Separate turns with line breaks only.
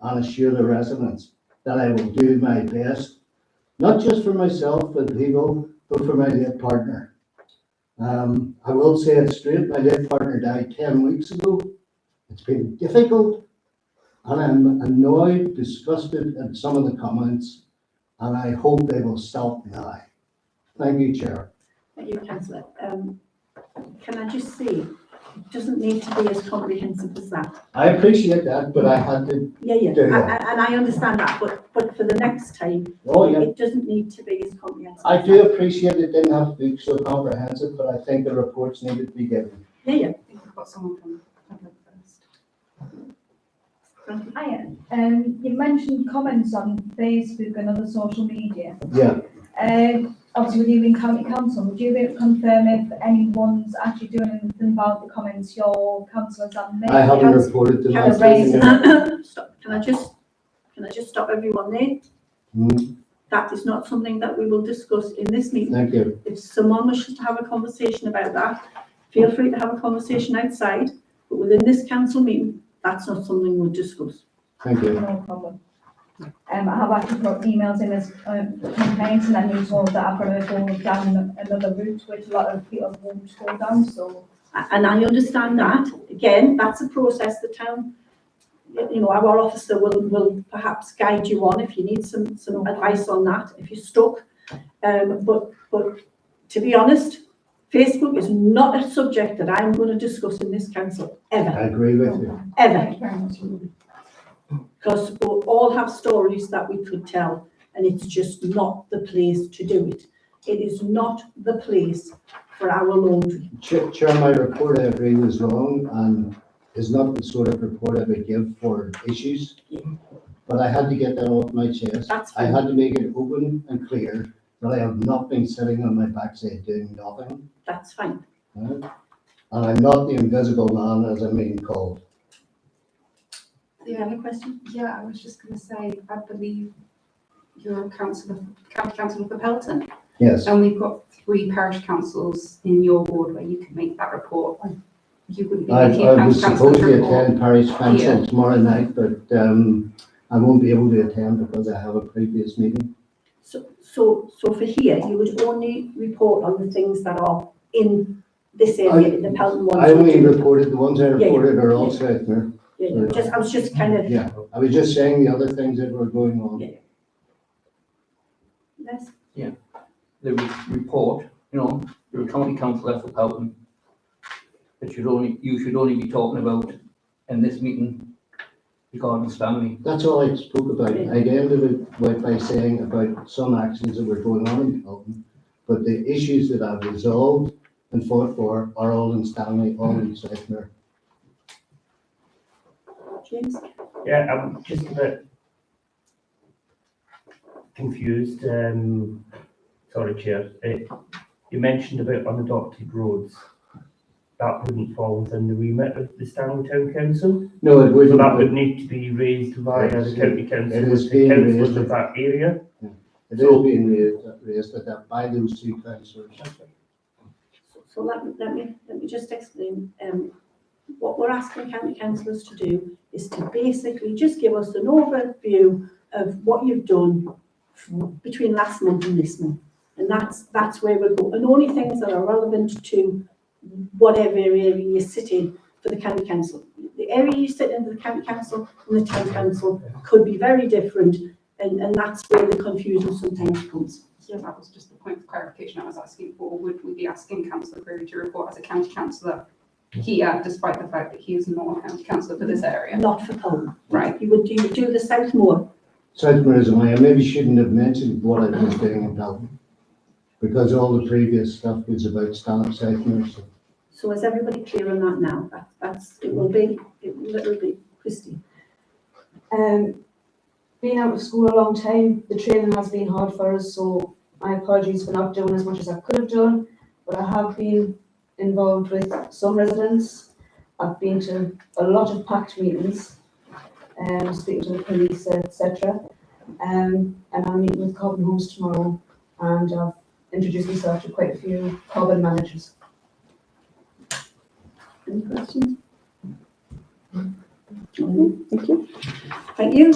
and assure the residents that I will do my best, not just for myself and people, but for my late partner. Um, I will say it straight, my late partner died ten weeks ago. It's been difficult, and I'm annoyed, disgusted at some of the comments, and I hope they will stop now. Thank you, Chair.
Thank you, councillor. Um, can I just say, it doesn't need to be as comprehensive as that.
I appreciate that, but I had to,
Yeah, yeah,
Yeah,
I-
yeah.
I- and I understand that, but, but for the next time,
oh, yeah,
it doesn't need to be as comprehensive.
I
as
do
that.
appreciate it didn't have to be so comprehensive, but I think the reports needed to be given.
Yeah, yeah.
I think we've got someone from public first.
Hiya, um, you mentioned comments on Facebook and other social media.
Yeah,
Um, obviously with you being county council, would you be able to confirm if anyone's actually doing anything about the comments your councillors have made?
I haven't reported to
Can I
last
raise-
meeting.
raise, stop, can I just, can I just stop everyone there?
Hmm,
That is not something that we will discuss in this meeting.
Thank you.
If someone wishes to have a conversation about that, feel free to have a conversation outside, but within this council meeting, that's not something we'll discuss.
Thank you.
No problem. Um, I have actually got emails in as, um, complaints and I knew told that I've got to go down another route, which a lot of people won't go down, so.
A- And I understand that, again, that's a process the town, y- you know, our officer will, will perhaps guide you on if you need some, some advice on that, if you're stuck. Um, but, but to be honest, Facebook is not a subject that I'm going to discuss in this council, ever,
I agree with you.
ever.
Thank you very much.
because we all have stories that we could tell and it's just not the place to do it. It is not the place for our laundry.
Chair, Chair, my report, I agree, was wrong and is not the sort of report I would give for issues. But I had to get that off my chest.
That's
I
fine.
had to make it open and clear that I have not been sitting on my backside doing nothing.
That's fine.
right? And I'm not the invisible man, as I'm being called.
Do you have a question?
Yeah, I was just going to say, I believe you're councillor, county councillor for Pelton,
Yes,
and we've got three parish councils in your ward where you can make that report. You wouldn't be
I,
making
I
a
was
county
supposed
councillor's
to
report.
attend Parish Council
Yeah.
tomorrow night, but, um, I won't be able to attend because I have a previous meeting.
So, so, so for here, you would only report on the things that are in this area, in the Pelton ones.
I only reported, the ones I
yeah.
reported are all Southmere.
Yeah, yeah, just, I was just kind of,
Yeah, I was just saying the other things that were going on.
Yeah. yes,
the re- report, you know, you're a county councillor for Pelton. That should only, you should only be talking about in this meeting regarding Stanley.
That's all I spoke about. I ended it by, by saying about some actions that were going on in Pelton. But the issues that I've resolved and fought for are all in Stanley, all in Southmere.
James?
Yeah, I'm just a bit confused. Um, sorry, Chair. Uh, you mentioned about unadopted roads. That wouldn't fall within the remit of the Stanley Town Council.
No, it
So that
wouldn't,
would need to be raised via the county council,
It is
with the
being
councillors
raised.
of that area.
it is being raised, raised at that by those two councillors.
So- So let me, let me, let me just explain, um, what we're asking county councillors to do is to basically just give us an overview of what you've done from- between last month and this month. And that's, that's where we go, and only things that are relevant to whatever area you sit in for the county council. The area you sit in, the county council and the town council could be very different, and, and that's where the confusion sometimes comes.
Yeah, that was just the point of clarification I was asking for. Would we be asking councillor Crewe to report as a county councillor here, despite the fact that he is not a county councillor for this area?
Not for Poland,
Right,
you would, you would do the South Moor,
Southmere is away, I maybe shouldn't have mentioned what I was doing in Pelton. Because all the previous stuff was about Stanley, Southmere, so.
So is everybody clear on that now? That, that's, it will be, it will literally be, Christie.
Um, being out of school a long time, the training has been hard for us, so my apologies for not doing as much as I could have done. But I have been involved with some residents. I've been to a lot of packed meetings, um, speaking to the police, etc. Um, and I'm meeting with Cobham Homes tomorrow, and I've introduced myself to quite a few Cobham managers.
Any questions? Okay, Thank you. Thank you.